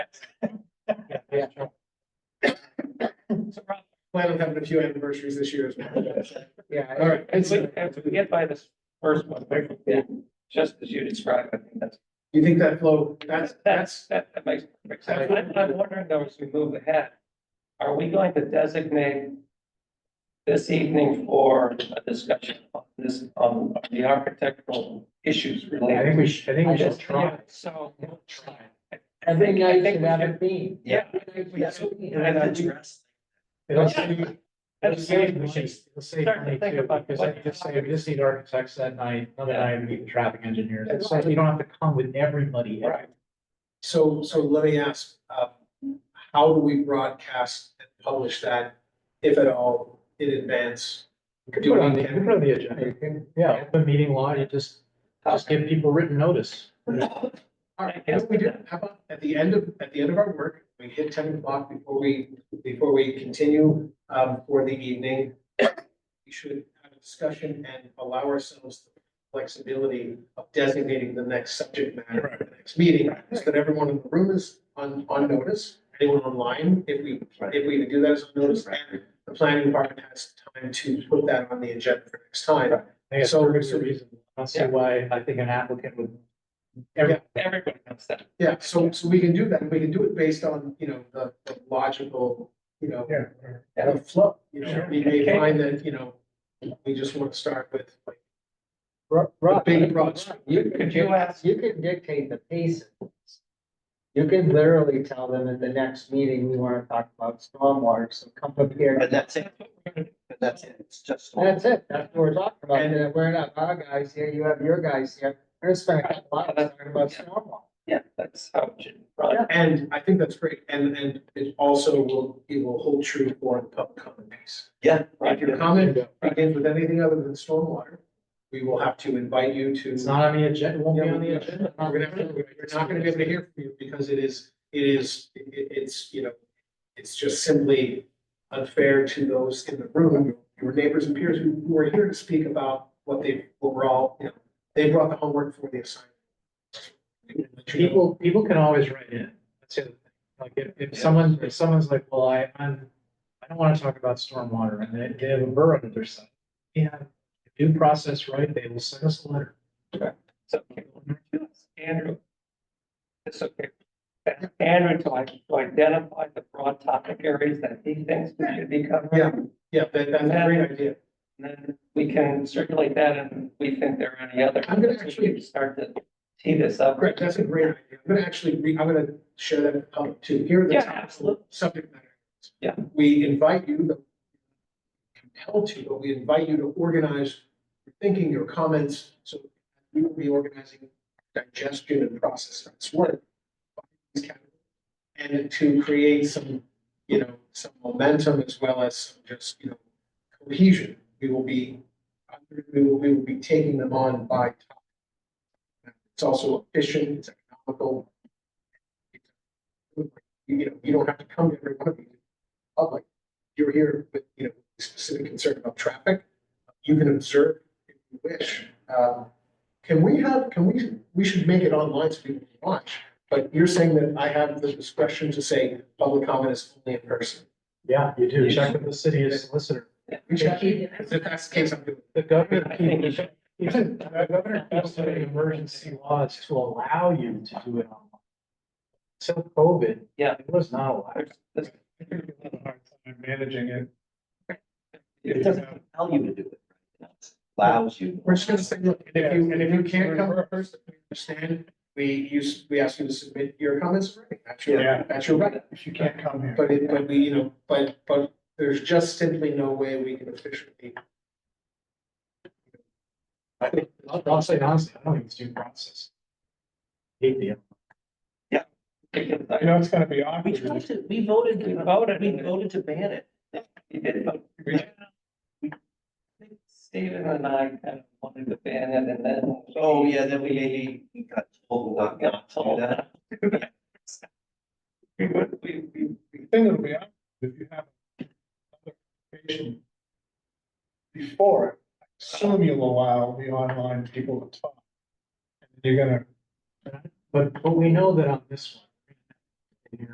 Yeah. So probably Plan on having a few anniversaries this year as well. Yeah. All right. As we, as we get by this first one, Yeah. just as you described, I think that's, You think that flow, that's, that's, that that makes perfect sense. I'm, I'm wondering though, as we move ahead, are we going to designate this evening for a discussion on this, on the architectural issues I related? think we should, I think we should try. Yeah, So. I think I think we that should- would be. Yeah. And I It'll think- save, it'll That's save saving money, money. it'll save Start to money think too, about because what- I just say, we just need architects that night, another Yeah. night, we need traffic engineers, it's like, you don't have to come with everybody. Right. so, so let me ask, uh, how do we broadcast and publish that, if at all, in advance? We could put it on the, we could put it on the agenda, yeah, open meeting law, you just, just give people written notice. All right, you know what we do, how about at the end of, at the end of our work, we hit ten o'clock before we, before we continue, um, for the evening. We should have a discussion and allow ourselves the flexibility of designating the next subject matter for the next meeting. So that everyone in the room is on, on notice, anyone online, if we, if we do that as a notice. and The planning department has time to put that on the agenda for next time. I think it's So- perfectly reasonable. I don't see Yeah. why, I think an applicant would. Every, Everybody knows that. Yeah, so, so we can do that, we can do it based on, you know, the the logical, you know, yeah, and a flow, you know, Sure. we may Okay. find that, you know, we just want to start with like Ro- the Rob, big broad strokes. you can, Could you dic- ask- you can dictate the pace. of this. You can literally tell them at the next meeting, we wanna talk about stormwater, so come prepared. But that's it, but that's it, it's just. That's it, that's what we're talking about, and we're not our guys here, you have your guys here, we're gonna spend a couple hours talking about stormwater. Yeah, that's how it should run. And I think that's great, and, and it also will, it will hold true for the public comment piece. Yeah. If your comment begins with anything other than stormwater, we will have to invite you to. it's not on the agenda, it won't be Yeah, on the we- agenda. We're gonna have to, we're not gonna be able to hear from you because it is, it is, it, it's, you know, it's just simply unfair to those in the room, your neighbors and peers who who are here to speak about what they, what we're all, you know, they brought the homework for the assignment. People, people can always write in. That's the other thing. Like if, if someone, if someone's like, well, I, I'm, I don't want to talk about stormwater and they, they have a borough under their site. Yeah, due process right, they will send us a letter. So, Andrew. It's okay. Ask Andrew to like, to identify the broad topic areas that he thinks we should be covering. Yeah. Yeah, that, that's a great idea. And then we can circulate that and if we think there are any other. I'm gonna we actually- can Start to tee this up. Great, Uh, that's a great idea. I'm gonna actually, re- I'm gonna share that with the public too. Here are the Yeah, top absolutely. subject matter. Yeah. We invite you, the- compelled to, but we invite you to organize your thinking, your comments, so we will be organizing digestion and process of this work. And to create some, you know, some momentum as well as some just, you know, cohesion. We will be, we will, we will be taking them on by topic. It's also efficient, it's economical. You know, you don't have to come to every one of these in public. You're here with, you know, specific concern about traffic. You can observe if you wish. Um, Can we have, can we, we should make it online so people can watch, but you're saying that I have the discretion to say public comment is only in person. Yeah, you do. Check with the city solicitor. Which I- If that's the case, I'm doing. The governor, I think you should. the governor keeps putting emergency laws to allow you to do it online. Till COVID. Yeah. It was not allowed. There's- there's- Managing it. It doesn't, Tell you to do it. It Allows you. We're just gonna say, look, and if you, and if you can't come in person, we understand, we use, we ask you to submit your comments, right? That's your, Yeah. that's your right. If you can't come here. But it, but we, you know, but, but there's just simply no way we can officially. I think, I'll, I'll say honestly, I don't think it's due process. Hate the. because I- know, it's gonna be We tried to, we voted, We voted. we voted to ban it. we did, but we- we- Stephen and I kind of wanted to ban it and then. Oh, yeah, then we maybe, we got told not to Got do told that. that. We would, we, we, we- thing that'll be, out, if you have another application before, it, I assume you'll allow the online people to talk. And You're gonna, But, but we know that on this one,